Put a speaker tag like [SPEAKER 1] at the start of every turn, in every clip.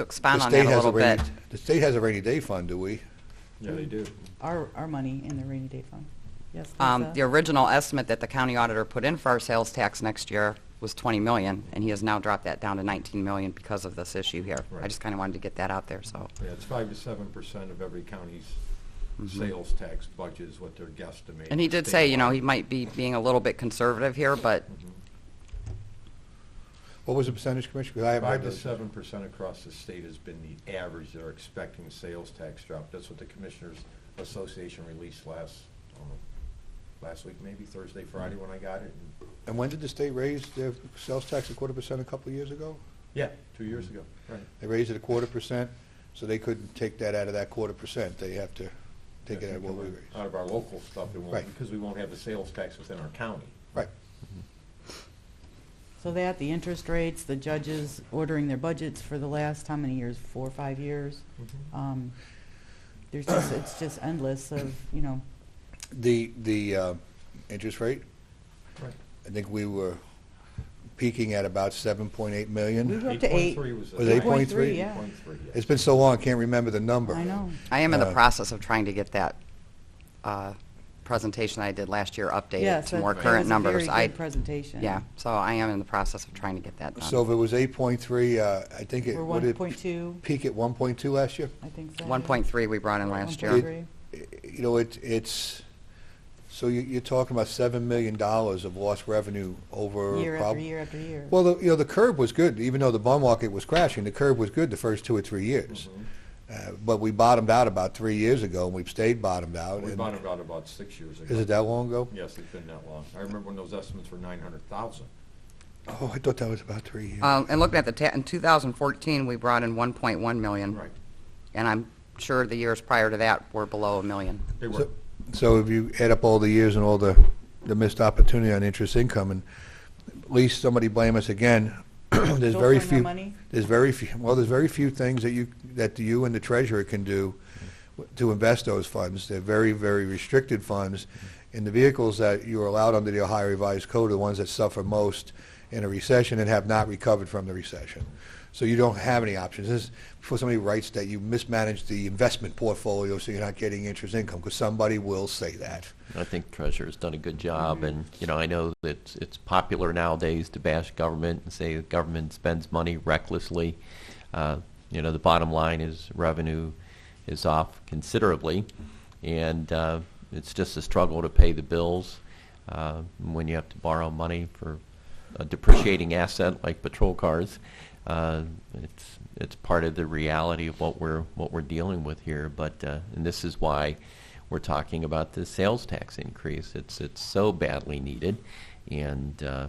[SPEAKER 1] to
[SPEAKER 2] The
[SPEAKER 1] expand on
[SPEAKER 2] state
[SPEAKER 1] that a
[SPEAKER 2] has
[SPEAKER 1] little
[SPEAKER 2] rainy-
[SPEAKER 1] bit.
[SPEAKER 2] The state has a rainy day fund, do we?
[SPEAKER 3] Yeah,
[SPEAKER 1] Hmm.
[SPEAKER 3] they do.
[SPEAKER 4] Our, our money in the rainy day fund. Yes,
[SPEAKER 1] Um, The
[SPEAKER 4] Lisa?
[SPEAKER 1] original estimate that the county auditor put in for our sales tax next year was 20 million, and he has now dropped that down to 19 million because of this issue here. I
[SPEAKER 3] Right.
[SPEAKER 1] just kind of wanted to get that out there, so.
[SPEAKER 3] Yeah, it's five to seven percent of every county's
[SPEAKER 2] Mm-hmm.
[SPEAKER 1] Mhm.
[SPEAKER 3] sales tax budget is what they're guesstimating.
[SPEAKER 1] And he did say, you know,
[SPEAKER 3] statewide.
[SPEAKER 1] he might be being a little bit conservative here, but
[SPEAKER 3] Mhm.
[SPEAKER 2] What was the percentage, Commissioner? 'Cause I haven't
[SPEAKER 3] Five
[SPEAKER 2] heard
[SPEAKER 3] to
[SPEAKER 2] those.
[SPEAKER 3] seven percent across the state has been the average they're expecting sales tax drop. That's what the Commissioners Association released last, I don't know, last week, maybe Thursday, Friday when I got it. And-
[SPEAKER 2] And when did the state raise their sales tax a quarter percent a couple of years ago?
[SPEAKER 3] Yeah, two years ago, right.
[SPEAKER 2] They raised it a quarter percent, so they couldn't take that out of that quarter percent. They have to take it out of what we raise.
[SPEAKER 3] Out of our local stuff, it won't,
[SPEAKER 2] Right.
[SPEAKER 3] because we won't have the sales tax within our county.
[SPEAKER 2] Right.
[SPEAKER 4] So that, the interest rates, the judges ordering their budgets for the last, how many years, four, or five years?
[SPEAKER 2] Mm-hmm.
[SPEAKER 4] Um, There's just, it's just endless of, you know,
[SPEAKER 2] The, the uh, interest rate,
[SPEAKER 3] Right.
[SPEAKER 2] I think we were peaking at about 7.8
[SPEAKER 4] we
[SPEAKER 2] million.
[SPEAKER 4] were up to eight.
[SPEAKER 3] 8.3 was the.
[SPEAKER 2] Was
[SPEAKER 3] high.
[SPEAKER 2] 8.3?
[SPEAKER 4] Yeah.
[SPEAKER 3] 8.3, yeah.
[SPEAKER 2] It's been so long, I can't remember the number.
[SPEAKER 4] I know.
[SPEAKER 1] I am in the
[SPEAKER 2] Uh,
[SPEAKER 1] process of trying to get that uh, presentation I did last year updated
[SPEAKER 4] Yes,
[SPEAKER 1] to
[SPEAKER 4] that
[SPEAKER 1] more
[SPEAKER 4] that
[SPEAKER 1] current
[SPEAKER 4] was
[SPEAKER 1] numbers.
[SPEAKER 4] a
[SPEAKER 1] I
[SPEAKER 4] very good presentation.
[SPEAKER 1] Yeah, so I am in the process of trying to get that done.
[SPEAKER 2] So if it was 8.3, uh, I think it,
[SPEAKER 4] We're
[SPEAKER 2] would it
[SPEAKER 4] 1.2,
[SPEAKER 2] peak at 1.2 last year?
[SPEAKER 4] I think so.
[SPEAKER 1] 1.3 we brought in last year.
[SPEAKER 4] 1.3.
[SPEAKER 2] you know, it, it's, so you, you're talking about seven million dollars of lost revenue over.
[SPEAKER 4] Year
[SPEAKER 2] prob-
[SPEAKER 4] after year after year.
[SPEAKER 2] Well, the, you know, the curb was good, even though the bond market was crashing, the curb was good the first two or three years.
[SPEAKER 3] Mhm.
[SPEAKER 4] Mm-hmm.
[SPEAKER 2] Uh, but we bottomed out about three years ago, and we've stayed bottomed out.
[SPEAKER 3] We
[SPEAKER 2] and-
[SPEAKER 3] bought it out about six years ago.
[SPEAKER 2] Oh, Is it that long ago?
[SPEAKER 3] Yes, it's been that long. I remember when those estimates were nine hundred thousand.
[SPEAKER 2] Oh, I thought that was about three
[SPEAKER 3] Uh,
[SPEAKER 2] years.
[SPEAKER 1] Um, And looking at the, ta- in 2014, we brought in 1.1 million.
[SPEAKER 3] Right,
[SPEAKER 1] And I'm sure the years prior to that were below a million.
[SPEAKER 3] they were.
[SPEAKER 2] So- So if you add up all the years and all the, the missed opportunity on interest income, and at least somebody blame us again, there's
[SPEAKER 4] Don't
[SPEAKER 2] very
[SPEAKER 4] spend our
[SPEAKER 2] few.
[SPEAKER 4] money?
[SPEAKER 2] There's very few, well, there's very few things that you, that you and the treasurer can do w- to invest those funds. They're very, very restricted funds. And the vehicles that you are allowed under the Ohio Revised Code are the ones that suffer most in a recession and have not recovered from the recession. So you don't have any options. This is before somebody writes that you mismanaged the investment portfolio so you're not getting interest income, because somebody will say that.
[SPEAKER 5] I think Treasurer's done a good job, and, you know, I know that it's- it's popular nowadays to bash government and say the government spends money recklessly. Uh, You know, the bottom line is revenue is off considerably, and uh, it's just a struggle to pay the bills uh, when you have to borrow money for a depreciating asset like patrol cars. Uh, It's, it's part of the reality of what we're, what we're dealing with here, but, uh, and this is why we're talking about the sales tax increase. It's it's so badly needed, and uh,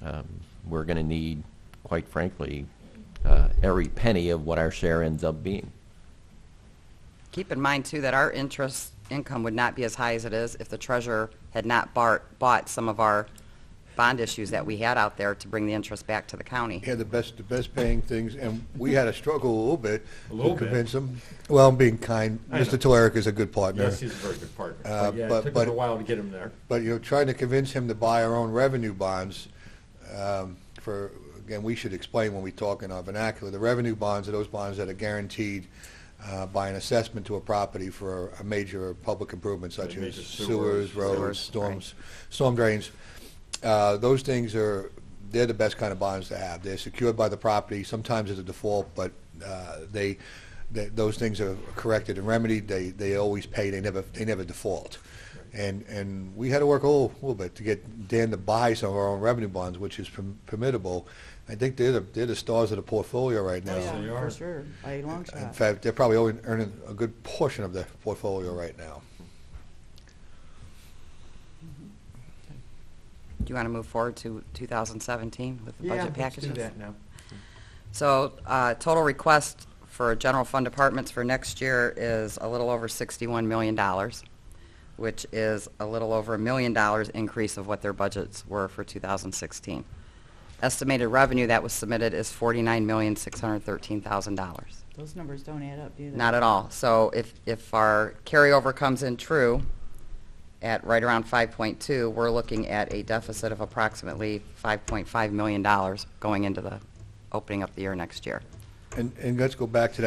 [SPEAKER 5] um, we're going to need, quite frankly, uh, every penny of what our share ends up being.
[SPEAKER 1] Keep in mind, too, that our interest income would not be as high as it is if the treasurer had not bar- bought some of our bond issues that we had out there to bring the interest back to the county.
[SPEAKER 2] Yeah, the best, the best paying things, and we had a struggle a little bit
[SPEAKER 3] A little
[SPEAKER 2] to
[SPEAKER 3] bit.
[SPEAKER 2] convince them. Well, I'm being kind.
[SPEAKER 3] I know.
[SPEAKER 2] Mr. Telerik is a good partner.
[SPEAKER 3] Yes, he's a very good partner.
[SPEAKER 2] Uh,
[SPEAKER 3] But yeah,
[SPEAKER 2] but-
[SPEAKER 3] it took us
[SPEAKER 2] but-
[SPEAKER 3] a while to get him there.
[SPEAKER 2] But, you know, trying to convince him to buy our own revenue bonds, um, for, again, we should explain when we talk in our vernacular, the revenue bonds are those bonds that are guaranteed uh, by an assessment to a property for a major public improvement such
[SPEAKER 3] Like
[SPEAKER 2] as
[SPEAKER 3] major
[SPEAKER 2] sewers,
[SPEAKER 3] sewers,
[SPEAKER 2] roads,
[SPEAKER 1] sewers,
[SPEAKER 2] storms, storm drains. Uh, Those things are, they're the best kind of bonds to have. They're secured by the property, sometimes it's a default, but uh, they, th- those things are corrected and remedied, they, they always pay, they never, they never default. And, and we had to work a little, little bit to get Dan to buy some of our own revenue bonds, which is perm- permittable. I think they're the, they're the stars of the portfolio right
[SPEAKER 4] Oh,
[SPEAKER 2] now.
[SPEAKER 3] Yes, they
[SPEAKER 4] yeah, for
[SPEAKER 3] are.
[SPEAKER 4] sure, by a long
[SPEAKER 2] In
[SPEAKER 4] shot.
[SPEAKER 2] fact, they're probably only earning a good portion of the portfolio right now.
[SPEAKER 1] Do you want to move forward to 2017 with the budget packages?
[SPEAKER 3] Yeah, let's do that now.
[SPEAKER 1] So uh, total request for general fund departments for next year is a little over $61 million, which is a little over a million dollars increase of what their budgets were for 2016. Estimated revenue that was submitted is $49,613,000.
[SPEAKER 4] Those numbers don't add up, do they?
[SPEAKER 1] Not at all. So if, if our carryover comes in true at right around 5.2, we're looking at a deficit of approximately $5.5 million going into the, opening up the year next year.
[SPEAKER 2] And, and let's go back to that